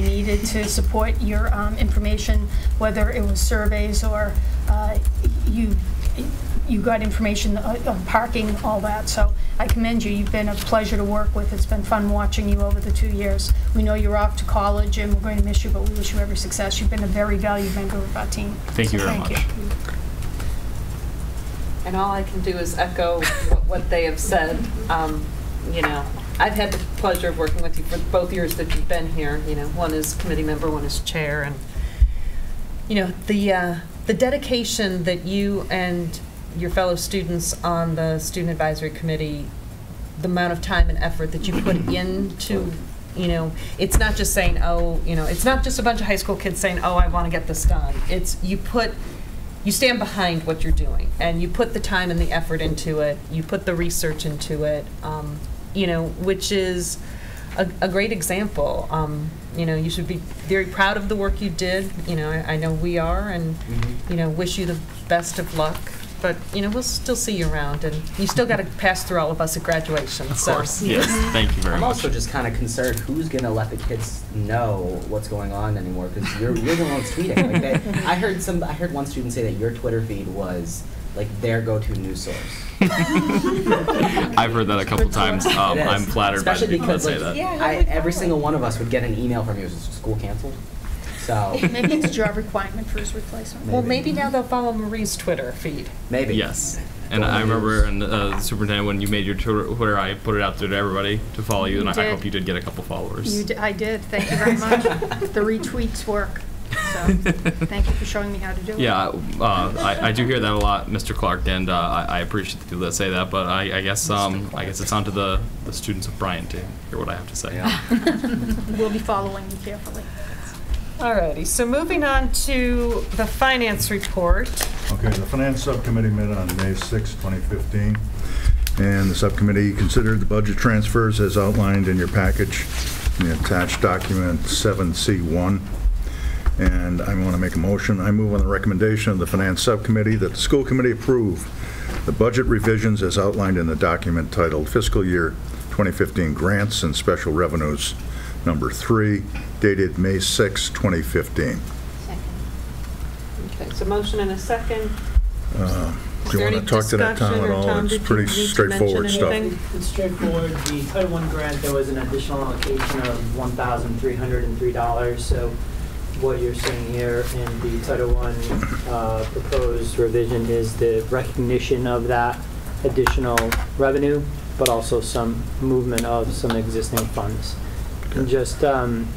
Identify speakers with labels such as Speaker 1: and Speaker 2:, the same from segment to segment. Speaker 1: needed to support your um, information, whether it was surveys or uh, you, you got information uh, on parking, all that. So I commend you. You've been a pleasure to work with. It's been fun watching you over the two years. We know you're off to college and we're going to miss you, but we wish you every success. You've been a very valued member of our team.
Speaker 2: Thank you
Speaker 1: So
Speaker 2: very much.
Speaker 3: And all I can do is echo what- what they have said. Um, You know, I've had the pleasure of working with you for both years that you've been here, you know, one is committee member, one is chair, and, you know, the, uh, the dedication that you and your fellow students on the Student Advisory Committee, the amount of time and effort that you put into, you know, it's not just saying, oh, you know, it's not just a bunch of high school kids saying, oh, I want to get this done. It's, you put you stand behind what you're doing and you put the time and the effort into it you put the research into it um, you know which is a, a great example um, you know you should be very proud of the work you did you know i, I know we are and you know wish you the best of luck but you know we'll still see you around and you still got to pass through all of us at graduation
Speaker 2: Of
Speaker 3: so
Speaker 2: course, yes, thank you very
Speaker 4: I'm
Speaker 2: much.
Speaker 4: also just kind of concerned who's going to let the kids know what's going on anymore because you're, you're the one tweeting. Like that, I heard some. I heard one student say that your Twitter feed was like their go-to news source.
Speaker 2: I've heard that a couple times. Um,
Speaker 4: It is.
Speaker 2: I'm flattered by the
Speaker 4: Especially
Speaker 2: people that
Speaker 4: because,
Speaker 2: say that.
Speaker 4: like,
Speaker 5: Yeah,
Speaker 4: I,
Speaker 5: that'd be
Speaker 4: every
Speaker 5: fun.
Speaker 4: single one of us would get an email from you. Is school canceled? So
Speaker 1: Maybe it's a job requirement for his replacement.
Speaker 3: well maybe now they'll follow marie's twitter feed
Speaker 4: maybe
Speaker 2: Yes. And
Speaker 4: Don't
Speaker 2: I remember,
Speaker 4: use-
Speaker 2: and uh, Superintendent, when you made your Twitter, Twitter, I put it out there to everybody to follow you,
Speaker 1: You
Speaker 2: and I- I
Speaker 1: did.
Speaker 2: hope you did get a couple followers.
Speaker 1: You, d- I did, thank you very much. The retweets work, so thank you for showing me how to do it.
Speaker 2: Yeah, uh, I, I do hear that a lot, Mr. Clark, and uh, I, I appreciate the people that say that. But I, I guess um, I guess it's on to the, the students of Bryant to hear what I have to say.
Speaker 1: We'll be following you carefully.
Speaker 3: Alrighty, so moving on to the finance report.
Speaker 6: Okay, the Finance Subcommittee met on May 6, 2015, and the subcommittee considered the budget transfers as outlined in your package, in the attached document 7C1. And I want to make a motion. I move on the recommendation of the Finance Subcommittee that the School Committee approve the budget revisions as outlined in the document titled Fiscal Year 2015 Grants and Special Revenues Number 3, dated May 6, 2015.
Speaker 3: Okay, so motion and a second.
Speaker 6: Uh, Do you want to talk to that Tom at all? It's pretty straightforward stuff.
Speaker 7: It's straightforward. The Title I grant, there was an additional allocation of $1,303. So what you're seeing here in the Title I uh, proposed revision is the recognition of that additional revenue, but also some movement of some existing funds. And just, um,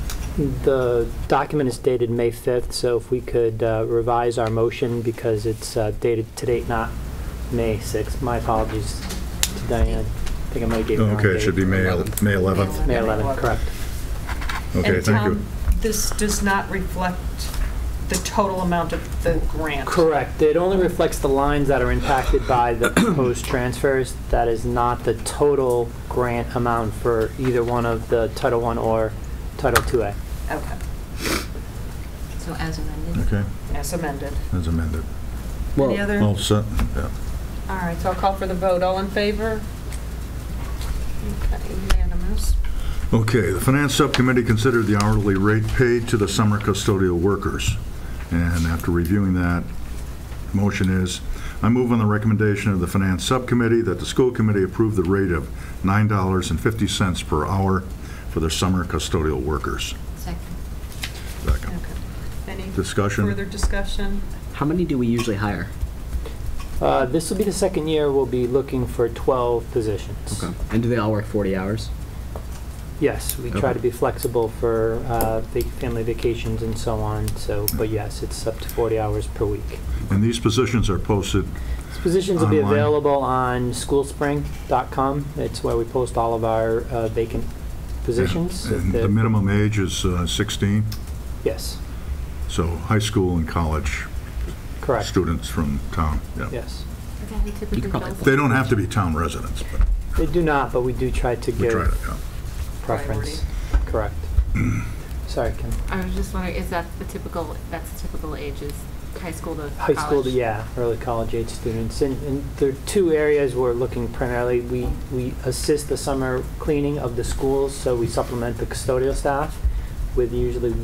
Speaker 7: the document is dated May 5th, so if we could uh, revise our motion because it's uh, dated to date, not May 6th. My apologies to Diane. I think I might have gave the wrong
Speaker 6: Okay, it should be
Speaker 7: date.
Speaker 6: May el- May 11th.
Speaker 7: May 11th, correct.
Speaker 6: Okay, thank you.
Speaker 3: this does not reflect the total amount of the grant.
Speaker 7: Correct. It only reflects the lines that are impacted by the proposed transfers. That is not the total grant amount for either one of the Title I or Title IIA.
Speaker 3: Okay,
Speaker 5: So as amended.
Speaker 6: Okay,
Speaker 3: as amended.
Speaker 6: as amended.
Speaker 3: Any other?
Speaker 6: Well,
Speaker 3: All
Speaker 6: so, yeah.
Speaker 3: right, so I'll call for the vote. All in favor? Okay, unanimous.
Speaker 6: Okay, the Finance Subcommittee considered the hourly rate paid to the summer custodial workers. And after reviewing that, motion is, I move on the recommendation of the Finance Subcommittee that the School Committee approve the rate of $9.50 per hour for the summer custodial workers.
Speaker 5: Second.
Speaker 6: Second.
Speaker 3: Okay. Any
Speaker 6: Discussion?
Speaker 3: further discussion?
Speaker 4: How many do we usually hire?
Speaker 7: Uh, This will be the second year we'll be looking for 12 positions.
Speaker 4: And do they all work 40 hours?
Speaker 7: Yes, we try
Speaker 4: Okay.
Speaker 7: to be flexible for uh, vac- family vacations and so on, so, but yes, it's up to 40 hours per week.
Speaker 6: And these positions are posted,
Speaker 7: These Positions will be
Speaker 6: Online.
Speaker 7: available on schoolspring.com. It's where we post all of our uh, vacant positions.
Speaker 6: and
Speaker 7: If
Speaker 6: the minimum age is uh, 16,
Speaker 7: Yes,
Speaker 6: so high school and college
Speaker 7: correct,
Speaker 6: students from town, yeah.
Speaker 7: yes.
Speaker 6: They don't have to be town residents, but
Speaker 7: They do not, but we do try to
Speaker 6: we try to,
Speaker 7: give
Speaker 6: yeah.
Speaker 7: preference. Correct. Sorry, Kim.
Speaker 5: I was just wondering, is that the typical, that's the typical ages, high school to
Speaker 7: High school, to
Speaker 5: college?
Speaker 7: yeah, early college age students. And, and there are two areas we're looking primarily. We, we assist the summer cleaning of the schools, so we supplement the custodial staff with usually